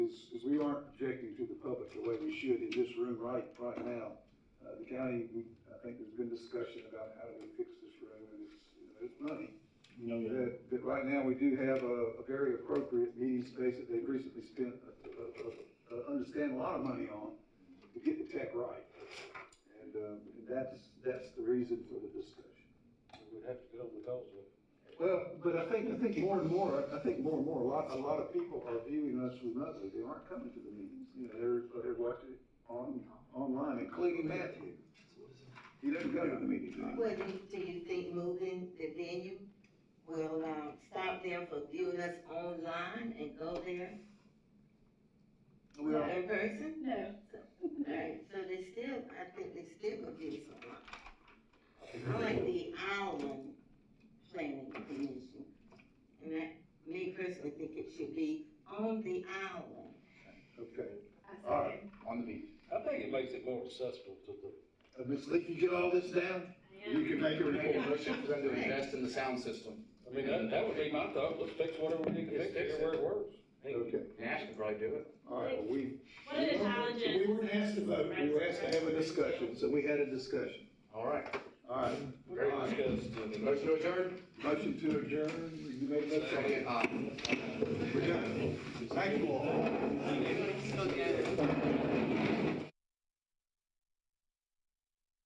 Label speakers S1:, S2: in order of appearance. S1: the way we should in this room right, right now. Uh, the county, we- I think there's been discussion about how do we fix this room, and it's, you know, it's money.
S2: Oh,
S3: No, yeah.
S1: That, that right now, we do have a, a very appropriate meeting space that they've recently spent, uh, uh, uh, understand a lot of money on to get the tech right. And, um, that's, that's the reason for the discussion.
S2: We'd have to get on the calls with it.
S1: Well, but I think, I think more and more, I think more and more, a lot, a lot of people are viewing us remotely, they aren't coming to the meetings, you know, they're, they're watching it on, online, including Matthew. He doesn't go to the meetings anymore.
S4: Well, do you, do you think moving the venue will, um, stop them from viewing us online and go there
S1: Oh, Well,
S4: in person?
S5: No.
S4: Right, so they still, I think they still gonna give us a lot. I like the island planning commission. And I, me personally think it should be on the island.
S1: okay,
S5: I
S1: All right.
S5: second.
S3: On the beach.
S2: I think it makes it more accessible to the
S1: uh, Ms. Lee, you get all this down?
S5: Yeah.
S1: can make a
S3: Motion for them to invest in the sound system.
S2: I mean, that, that would be my thought, let's fix whatever we need to fix,
S3: Fix it.
S2: everywhere it works.
S1: Okay,
S3: Nash could probably do it.
S1: all right, well, we.
S5: One of the challenges.
S1: We weren't asked to vote, we were asked to have a discussion, so we had a discussion,
S3: All right.
S1: all right.
S2: Very discussed.
S3: Motion to adjourn?
S1: Motion to adjourn, you made that second,
S3: Aye.
S1: we're done. Thank you all.